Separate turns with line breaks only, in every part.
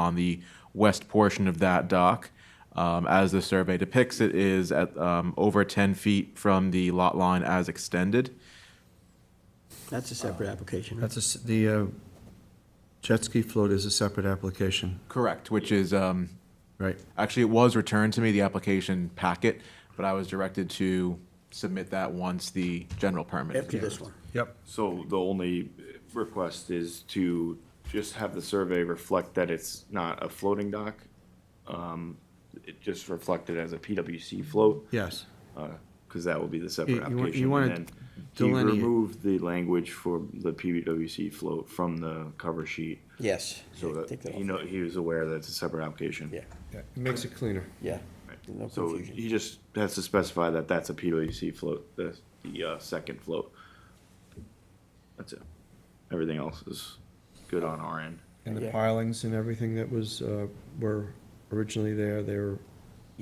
on the west portion of that dock. Um, As the survey depicts, it is at um, over 10 feet from the lot line as extended.
That's a separate application, right?
That's a s the uh, jet ski float is a separate application,
Correct, which is, um,
right?
actually, it was returned to me, the application packet, but I was directed to submit that once the general permit. is
After this one.
Yep.
So the only request is to just have the survey reflect that it's not a floating dock? Um, It just reflected as a PWC float?
Yes.
Because that will be the separate
You- you wa- you
application.
wanna
And then He
delineate.
removed the language for the PWC float from the cover sheet,
Yes.
so
Take
that
that
he
off.
know, he was aware that it's a separate application.
Yeah,
It makes it cleaner.
yeah. No
So
confusion.
he just has to specify that that's a PWC float, the, the uh, second float. That's it. Everything else is good on our end.
And the
Yeah.
pilings and everything that was, uh, were originally there, they were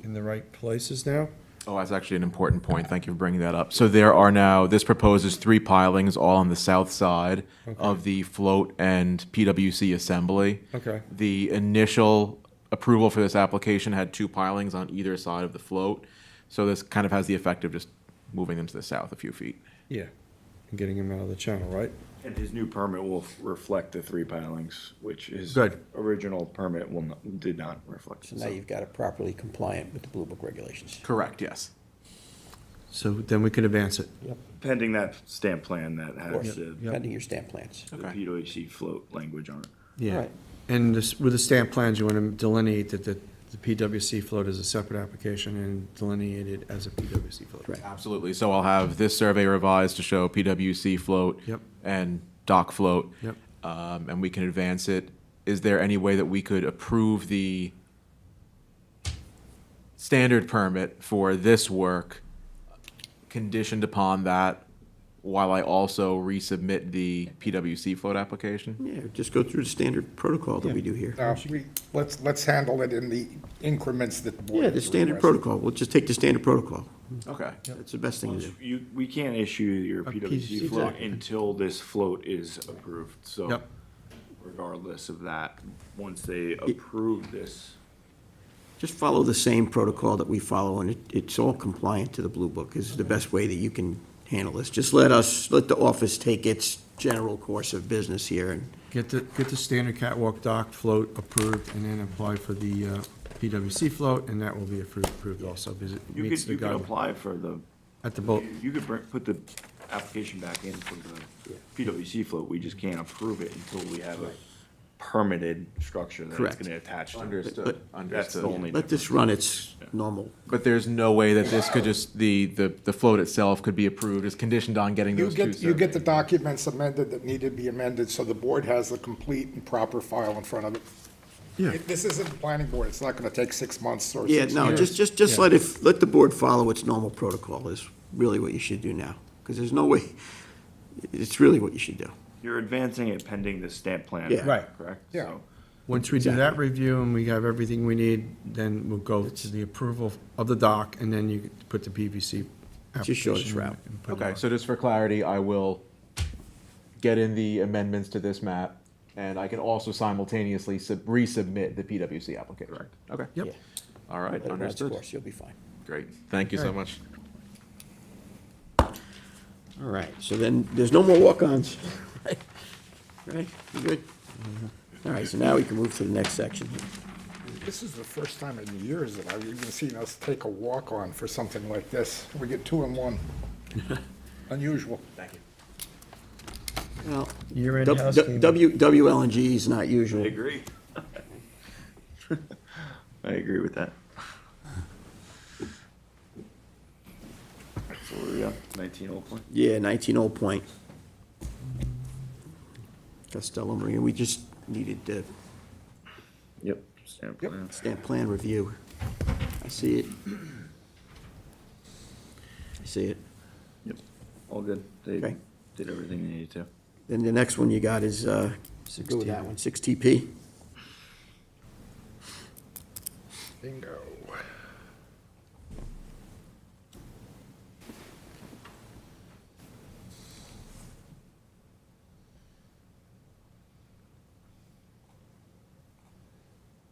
in the right places now?
Oh, that's actually an important point. Thank you for bringing that up. So there are now, this proposes three pilings, all on the south side of the float and PWC assembly.
Okay.
The initial approval for this application had two pilings on either side of the float. So this kind of has the effect of just moving them to the south a few feet.
Yeah. And getting them out of the channel, right?
And his new permit will f- reflect the three pilings, which his
Good.
original permit will, not- did not reflect.
So now
So-
you've got it properly compliant with the Blue Book regulations.
Correct, yes.
So then we could advance it.
Yep.
Pending that stamp plan that has
course.
the
Yep.
Pending your stamp plans.
the
Okay.
PWC float language on it.
Yeah.
Right.
And this, with the stamp plans, you want to delineate that the, the PWC float is a separate application and delineate it as a PWC float.
Right.
Absolutely. So I'll have this survey revised to show PWC float.
Yep.
And dock float.
Yep.
Um, and we can advance it. Is there any way that we could approve the standard permit for this work conditioned upon that while I also resubmit the PWC float application?
Yeah, just go through the standard protocol that we do here.
No, we, let's, let's handle it in the increments that the board.
Yeah, the standard
requests.
protocol. We'll just take the standard protocol.
Okay.
That's the best thing to do.
You, we can't issue your
PWC
PWC float
float.
until this float is approved, so
Yep.
regardless of that, once they approve this,
Just follow the same protocol that we follow, and it, it's all compliant to the Blue Book, is the best way that you can handle this. Just let us, let the office take its general course of business here, and
Get the, get the standard catwalk dock float approved and then apply for the uh, PWC float and that will be approved, approved also because it
you
meets
could,
the
you could
guideline.
apply for the,
At the boat,
you could bring- put the application back in for the PWC float, we just can't approve it until we have a permitted structure that it's
Correct.
gonna attach to.
Understood,
But-
That's the
understood.
only
let this
difference.
run its normal.
But there's no way that this could just, the, the, the float itself could be approved as conditioned on getting
You
those two
get, you get the
surveys?
documents amended that need to be amended, so the board has the complete and proper file in front of it.
Yeah.
It- This isn't the planning board, it's not gonna take six months or
Yeah,
six
no,
years.
just, just, just let it, let the board follow its normal protocol is really what you should do now, because there's no way, it's really what you should do.
You're advancing it pending the stamp plan.
Yeah.
Right.
Correct?
Yeah.
So-
once we do that review and we have everything we need, then we'll go to the approval of the dock and then you put the PVC
Just show us
application
route.
and put it
Okay,
on.
so just for clarity, I will get in the amendments to this map, and I can also simultaneously sub- resubmit the PWC application. Correct. Okay.
Yep,
All right,
Let it run its
understood.
course, You'll be fine.
Great, thank you so much.
All right, so then, there's no more walk-ons. Right, you good? All right, so now we can move to the next section.
This is the first time in years that I've even seen us take a walk-on for something like this. We get two in one. Unusual. Thank you.
Well,
Year-end
W-
house cleaning.
W, WLNG is not usual.
I agree. I agree with that. So we got nineteen Old Point.
Yeah, 19 Old Point. Costello Marine, we just needed the
Yep. Stamp
Yep.
plan.
stamp plan review. I see it. I see it.
Yep. All good. They
Okay.
did everything they needed to.
Then the next one you got is, uh, go with that one, 6TP.
Bingo.